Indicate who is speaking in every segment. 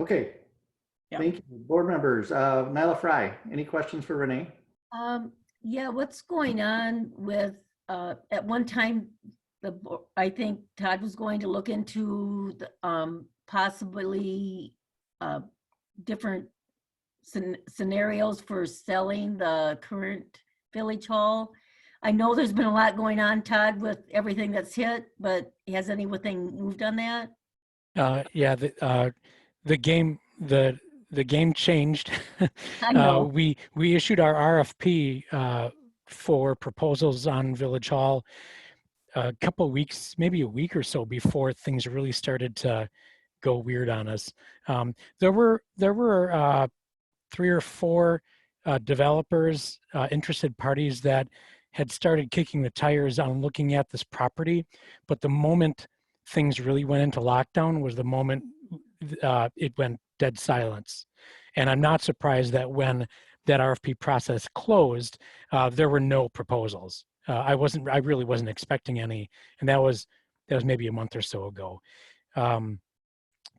Speaker 1: Okay.
Speaker 2: Yeah.
Speaker 1: Thank you. Board members, uh, Nyla Fry, any questions for Renee?
Speaker 3: Um, yeah, what's going on with, uh, at one time, the, bo- I think Todd was going to look into the, um, possibly, uh, different scen- scenarios for selling the current village hall. I know there's been a lot going on, Todd, with everything that's hit, but has anything moved on that?
Speaker 4: Uh, yeah, the, uh, the game, the, the game changed.
Speaker 3: I
Speaker 4: Uh,
Speaker 3: know,
Speaker 4: we, we issued our RFP, uh, for proposals on Village Hall a couple weeks, maybe a week or so before things really started to go weird on us. Um, there were, there were, uh, three or four, uh, developers, uh, interested parties that had started kicking the tires on looking at this property. But the moment things really went into lockdown was the moment uh, it went dead silence. And I'm not surprised that when that RFP process closed, uh, there were no proposals. Uh, I wasn't, I really wasn't expecting any, and that was that was maybe a month or so ago. Um,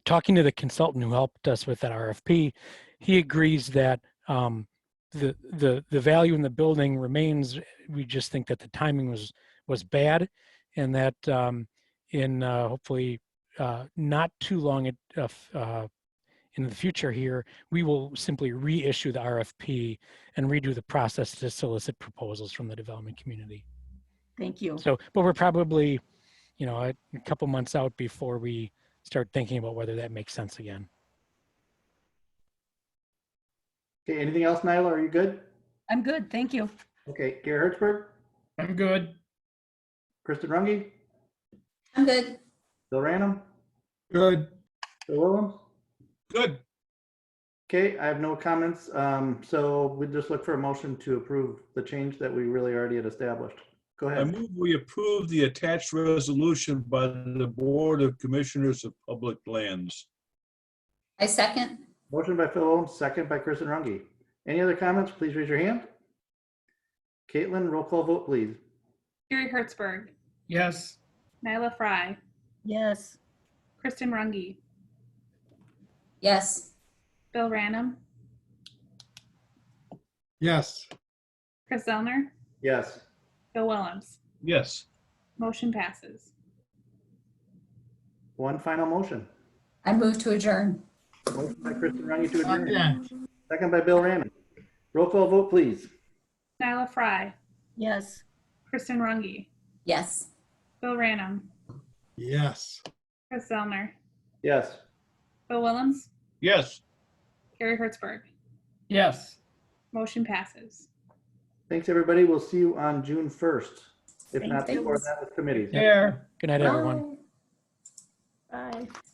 Speaker 4: talking to the consultant who helped us with that RFP, he agrees that um, the the the value in the building remains. We just think that the timing was was bad, and that um, in uh, hopefully uh, not too long at, uh, f- uh, in the future here, we will simply reissue the RFP and redo the process to solicit proposals from the development community.
Speaker 3: thank you.
Speaker 4: So, but we're probably, you know, a a couple months out before we start thinking about whether that makes sense again.
Speaker 1: Okay, anything else, Nyla? Are you good?
Speaker 3: I'm good, thank you.
Speaker 1: Okay, Gary Hertzberg,
Speaker 2: I'm good.
Speaker 1: Kristen Runge,
Speaker 5: I'm good.
Speaker 1: Bill Random,
Speaker 2: Good.
Speaker 1: Bill Williams?
Speaker 2: Good.
Speaker 1: Okay, I have no comments. Um, so we just look for a motion to approve the change that we really already had established. Go
Speaker 6: I
Speaker 1: ahead.
Speaker 6: move we approve the attached resolution by the Board of Commissioners of Public Lands.
Speaker 5: I second.
Speaker 1: Motion by Phil Williams, second by Kristen Runge. Any other comments? Please raise your hand. Caitlin, roll call vote, please.
Speaker 7: Gary Hertzberg,
Speaker 2: Yes.
Speaker 7: Nyla Fry,
Speaker 3: Yes,
Speaker 7: Kristen Runge,
Speaker 5: Yes.
Speaker 7: Bill Ranum,
Speaker 2: Yes.
Speaker 7: Chris Zellner,
Speaker 1: Yes.
Speaker 7: Bill Willems.
Speaker 6: Yes,
Speaker 7: Motion passes.
Speaker 1: One final motion.
Speaker 5: I move to adjourn.
Speaker 1: Motion by Kristen Runge to adjourn. Second by Bill Random. Roll call vote, please.
Speaker 7: Nyla Fry,
Speaker 3: yes.
Speaker 7: Kristen Runge,
Speaker 5: Yes.
Speaker 7: Bill Ranum,
Speaker 2: Yes.
Speaker 7: Chris Zellner,
Speaker 1: Yes.
Speaker 7: Bill Willems,
Speaker 6: yes.
Speaker 7: Gary Hertzberg.
Speaker 2: Yes.
Speaker 7: Motion passes.
Speaker 1: Thanks, everybody. We'll see you on June 1st, if not
Speaker 5: Thanks.
Speaker 1: before that with committees.
Speaker 2: There.
Speaker 4: Good night, everyone.
Speaker 5: Bye.
Speaker 3: Bye.